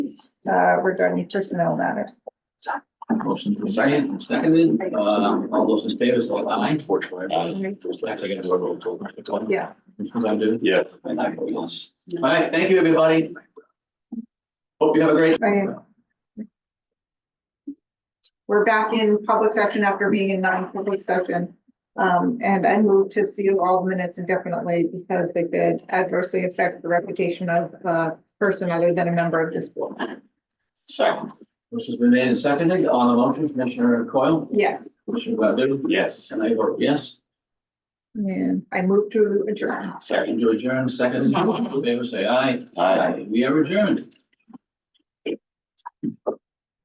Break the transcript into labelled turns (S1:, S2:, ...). S1: uh, regarding personnel matters.
S2: Motion for second, seconded, um, all those in favor, so aye. Unfortunately. Actually, I gotta vote roll call.
S1: Yeah.
S2: Because I'm doing.
S3: Yeah.
S2: And I vote yes. All right, thank you, everybody. Hope you have a great.
S1: Right. We're back in public session after being in non-public session. Um, and I move to seal all the minutes indefinitely because they could adversely affect the reputation of a person other than a member of this board.
S2: Second. Motion's been made and seconded, on the motion, Commissioner Coyle,
S1: Yes,
S2: Commissioner Godu,
S3: Yes.
S2: and I vote yes.
S1: and I move to adjourn.
S2: Second to adjourn, seconded, all those in favor, say aye.
S3: Aye.
S2: We are adjourned.